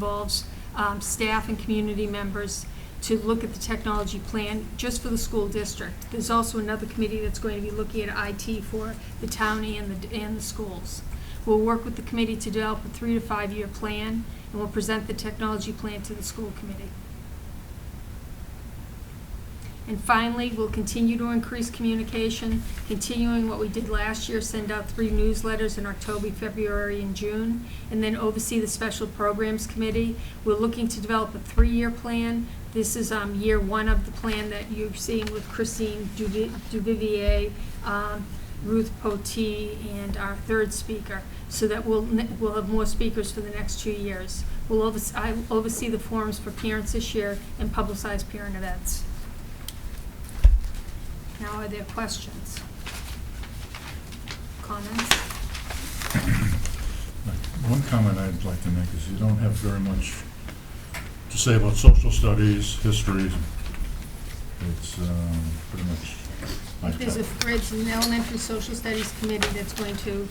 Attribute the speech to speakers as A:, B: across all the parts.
A: involves um, staff and community members to look at the technology plan just for the school district. There's also another committee that's going to be looking at IT for the town and the, and the schools. We'll work with the committee to develop a three to five-year plan, and we'll present the technology plan to the school committee. And finally, we'll continue to increase communication, continuing what we did last year, send out three newsletters in October, February, and June, and then oversee the Special Programs Committee. We're looking to develop a three-year plan. This is um, year one of the plan that you've seen with Christine Duvi- Duvivier, um, Ruth Potee, and our third speaker, so that we'll, ne- we'll have more speakers for the next two years. We'll oversee, I will oversee the forums for parents this year and publicize parent events. Now, are there questions? Comments?
B: One comment I'd like to make is you don't have very much to say about social studies, history. It's um, pretty much my
A: There's a,
B: type.
A: there's an elementary social studies committee that's going to,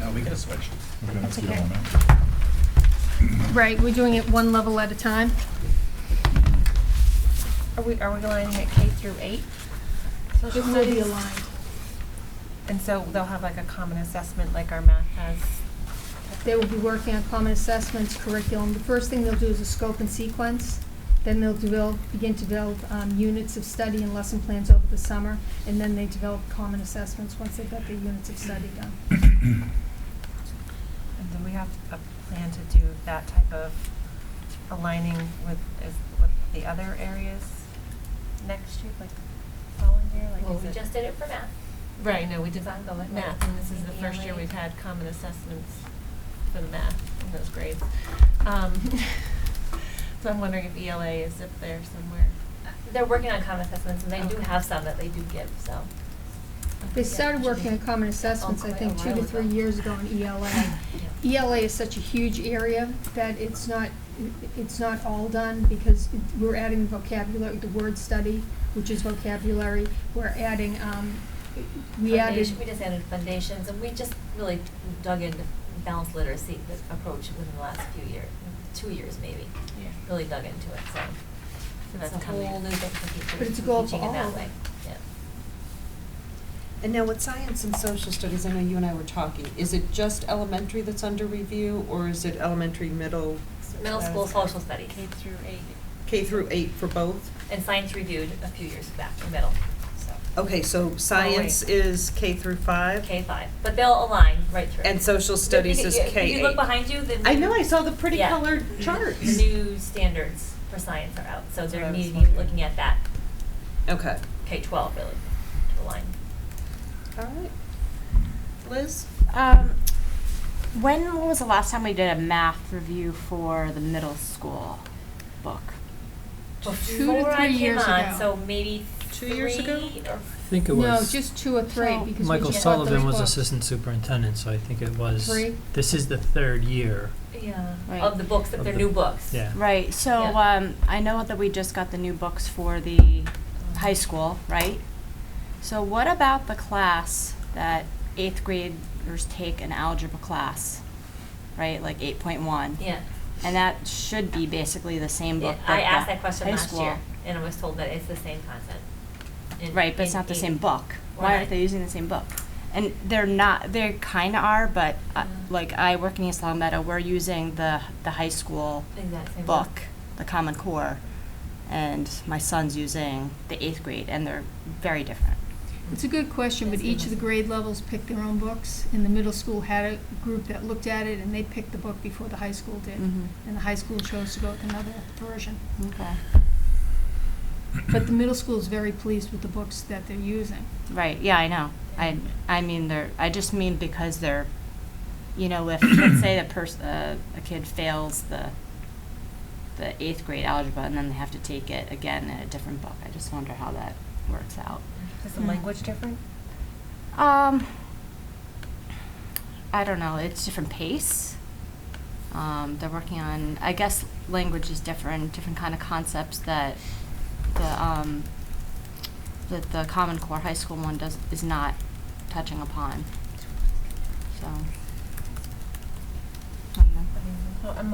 C: No, we gotta switch.
B: Okay, that's the
A: okay.
B: element.
A: right, we're doing it one level at a time.
D: Are we, are we going to K through eight?
A: It
D: social
A: will be
D: studies?
A: aligned.
D: And so they'll have like a common assessment like our math has.
A: They will be working on common assessments, curriculum. The first thing they'll do is a scope and sequence. Then they'll develop, begin to develop um, units of study and lesson plans over the summer. And then they develop common assessments once they've got the units of study done.
D: And do we have a plan to do that type of aligning with, is, with the other areas next year, like following year, like is
E: Well, we
D: it-
E: just did it for math.
D: Right, no, we did
E: It's ongoing.
D: math, and this is the first year
E: ELA.
D: we've had common assessments for the math in those grades. Um, So I'm wondering if ELA is up there somewhere.
E: They're working on common assessments, and they do
D: Okay.
E: have some that they do give, so.
A: They started working on common assessments, I think, two to three years ago in E ELA. ELA is such E a huge area that it's not, it's not all done because we're adding vocabulary, the word study, which is vocabulary. We're adding, um, we added,
E: Foundation- We just added foundations, and we just really dug into balanced literacy, the approach within the last few years, two years maybe,
D: Yeah.
E: really dug into it, so.
D: So
E: It's
D: that's
E: a
D: coming.
E: whole new thing for teachers,
A: But it's a goal for
E: teaching in that
A: all.
E: way, yeah.
F: And now with science and social studies, I know you and I were talking, is it just elementary that's under review, or is it elementary, middle,
E: Middle
D: So
E: school
D: it's
E: social studies,
D: K through eight.
F: K through eight for both?
E: and science reviewed a few years back, in middle, so.
F: Okay, so science is K through five?
E: Oh, K five, but they'll align right through.
F: And social studies is
E: If you- if
F: K eight?
E: you look behind you, the.
F: I know, I saw the pretty
E: Yeah. Mm-hmm.
F: colored charts. Oh,
E: New standards for science are out, so
F: That's what
E: they're
F: I was
E: needing,
F: wondering.
E: looking at that
F: Okay,
E: K twelve really, to align.
F: all right. Liz?
G: Um, when was the last time we did a math review for the middle school book?
A: Two to
E: Before I
A: three
E: came
A: years
E: on,
A: ago.
E: So maybe
F: Two years ago?
E: three or
H: I think it
A: no,
H: was,
A: just two or three because we just
H: Michael
A: bought those
H: Sullivan was
A: books.
H: assistant superintendent, so I think it was,
A: Three.
H: this is the third year.
E: Yeah,
G: Right.
E: of the books, that
H: Of
E: they're
H: the-
E: new books.
H: Yeah.
G: Right, so
E: Yeah.
G: um, I know that we just got the new books for the high school, right? So what about the class that eighth graders take an algebra class, right? Like 8.1?
E: Yeah.
G: And that should be basically the same book.
E: Yeah,
G: that
E: I
G: the
E: asked that question
G: high
E: last
G: school.
E: year, and I was told that it's the same content. in-
G: Right, but it's
E: in
G: not the
E: eight
G: same book.
E: or
G: Why
E: nine.
G: aren't they using the same book? And they're not, they kinda are, but uh,
E: Mm.
G: like I work in East Long Meadow, we're using the, the high school
E: Exact same book.
G: book, the Common Core, and my son's using the eighth grade, and they're very different.
A: It's a good question, but each of the grade levels picked their own books, and the middle school had a group that looked at it, and they picked the book before the high school did.
E: Mm-hmm.
G: Mhm.
A: And the high school chose to go with another version.
G: Okay.
A: But the middle school is very pleased with the books that they're using.
G: Right, yeah, I know. I, I mean, they're, I just mean because they're, you know, if, let's say a person, uh, a kid fails the, the eighth grade algebra, and then they have to take it again in a different book, I just wonder how that works out.
D: Is the
G: Mm.
D: language different?
G: Um, I don't know. It's different pace. Um, they're working on. I guess language is different. Different kind of concepts that the um, that the Common Core high school one does is not touching upon. So. I don't know.
D: Well, Oh, I'm